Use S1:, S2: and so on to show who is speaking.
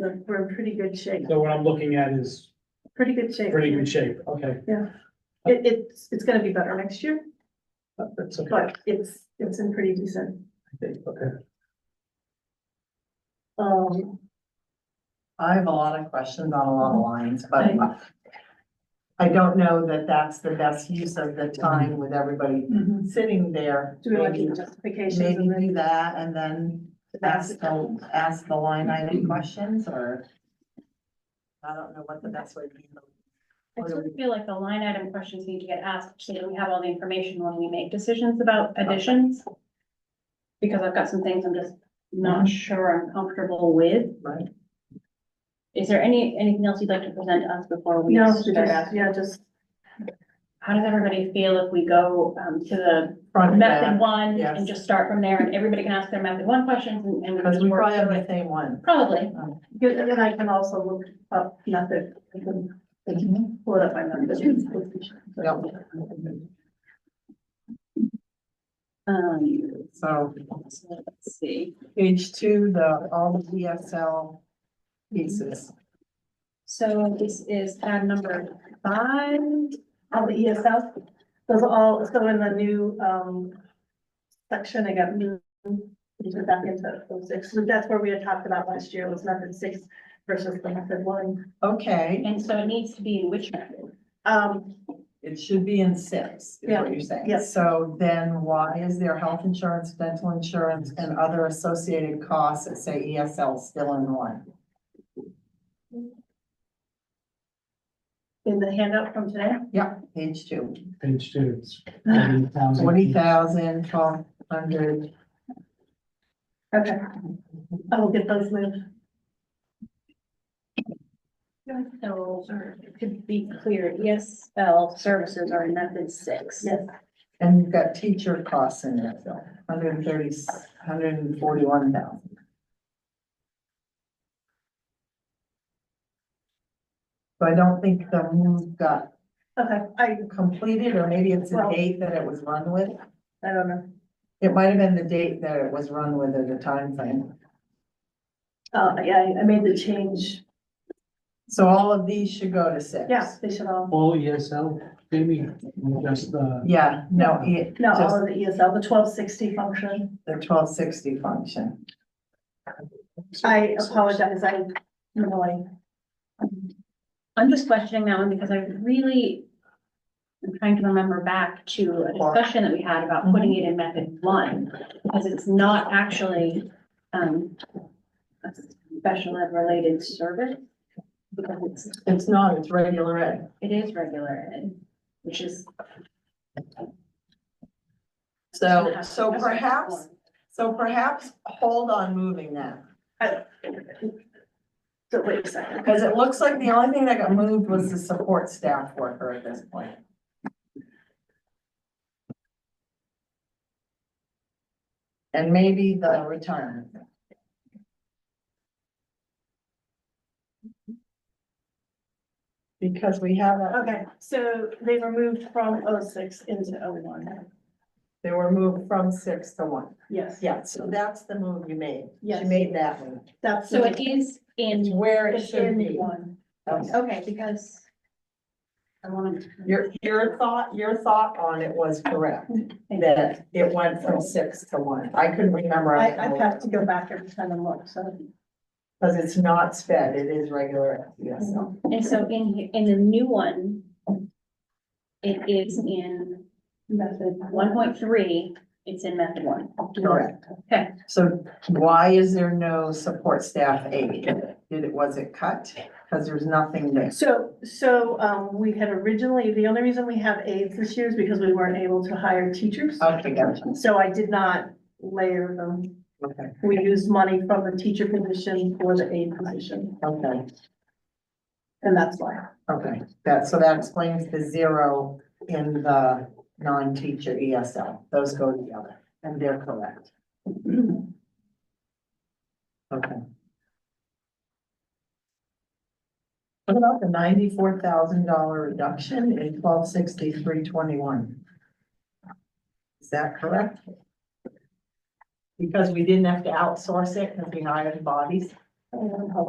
S1: we're we're in pretty good shape,
S2: So what I'm looking at is
S1: pretty good shape.
S2: pretty good shape, okay,
S1: It, it's, it's gonna be better next year,
S2: that's okay, I
S1: but it's, it's in pretty decent.
S2: think, okay.
S1: Um,
S3: I have a lot of questions on a lot of lines, but
S1: Right.
S3: I don't know that that's the best use of the time with everybody
S1: do
S3: sitting there.
S1: we want to
S3: Maybe-
S1: do justifications
S3: Mm-hmm. Maybe
S1: and
S3: do
S1: then?
S3: that and then ask the, ask the line item questions or I don't know what the best way to handle.
S4: I sort of feel like the line item questions need to get asked, so that we have all the information when we make decisions about additions. Because I've got some things I'm just
S3: Mm-hmm.
S4: not sure I'm comfortable with.
S3: Right.
S4: Is there any, anything else you'd like to present to us before we
S1: No,
S4: start
S1: just,
S4: asking?
S1: yeah, just,
S4: How does everybody feel if we go, um, to the
S3: Front and
S4: method
S3: back,
S4: one
S3: yes.
S4: and just start from there and everybody can ask their method one questions and, and.
S3: because
S4: just
S3: we
S4: work
S3: probably have
S4: through
S3: the
S4: it?
S3: same one.
S4: Probably.
S1: good, and then I can also look up method, I can pull it up by method.
S3: Yep.
S4: Um,
S3: So
S4: so let's see.
S3: page two, the, all the DSL pieces.
S4: So this is tab number five.
S1: All the ESL, those are all, so in the new, um, section, I got new, these are back into those six, so that's where we had talked about last year, was method six versus the method one.
S3: Okay,
S4: And so it needs to be in which method?
S1: Um,
S3: it should be in six, is
S1: Yeah,
S3: what you're saying.
S1: yes.
S3: So then why is there health insurance, dental insurance, and other associated costs that say E ESL still in one?
S1: in the handout from today,
S3: Yep, page two.
S2: Page two, um, it's forty thousand.
S3: Forty thousand, twelve hundred.
S1: okay, I will get those moved.
S4: So to be clear, ESL services are in method six.
S1: Yes,
S3: And you've got teacher costs in there, so hundred and thirty, hundred and forty-one thousand. So I don't think the move got
S1: okay, I,
S3: completed, or maybe it's the
S1: Well-
S3: date that it was run with.
S1: I don't know,
S3: It might have been the date that it was run with or the time frame.
S1: uh, yeah, I made the change,
S3: So all of these should go to six.
S1: yeah, they should all,
S2: All ESL, Jamie, or just, uh,
S3: Yeah, no, it,
S1: no,
S3: just
S1: all of the ESL, the twelve sixty function.
S3: the twelve sixty function.
S1: I apologize, I, you know, I
S4: I'm just questioning that one because I really am trying to remember back to a discussion that we had
S3: Mm-hmm.
S4: about putting it in method one, because it's not actually um a special ed related service. Because it's,
S3: It's not, it's regular ed.
S4: it is regular ed, which is.
S3: So, so perhaps, so perhaps hold on moving that,
S1: So wait a second.
S3: because it looks like the only thing that got moved was the support staff worker at this point. And maybe the retirement. Because we have, a-
S1: Okay, so they were moved from O six into O one.
S3: they were moved from six to one.
S1: Yes,
S3: Yeah, so that's the move you made.
S1: Yes.
S3: You made that move.
S1: that's.
S4: So it is in
S3: It's where it
S1: It's
S3: should
S1: in
S3: be.
S1: one.
S3: Okay.
S4: Okay, because. I wanted.
S3: Your, your thought, your thought on it was correct, that it went from six to one. I couldn't remember.
S1: I, I have to go back every time and look, so.
S3: Because it's not sped, it is regular, yes.
S4: And so in, he- in the new one. It is in
S1: Method
S4: one point three, it's in method one.
S1: Mm-hmm.
S3: Correct.
S4: Okay.
S3: So why is there no support staff aid? Did it, was it cut? Because there's nothing there.
S1: So, so, um, we had originally, the only reason we have aides this year is because we weren't able to hire teachers.
S3: Okay, gotcha.
S1: So I did not layer them.
S3: Okay,
S1: We used money from the teacher position for the aide position,
S3: okay,
S1: and that's why.
S3: okay. That, so that explains the zero in the non-teacher ESL. Those go together and they're correct. Okay. What about the ninety-four thousand dollar reduction in twelve sixty-three twenty-one? Is that correct? Because we didn't have to outsource it because we hired bodies?
S1: Um, hold on.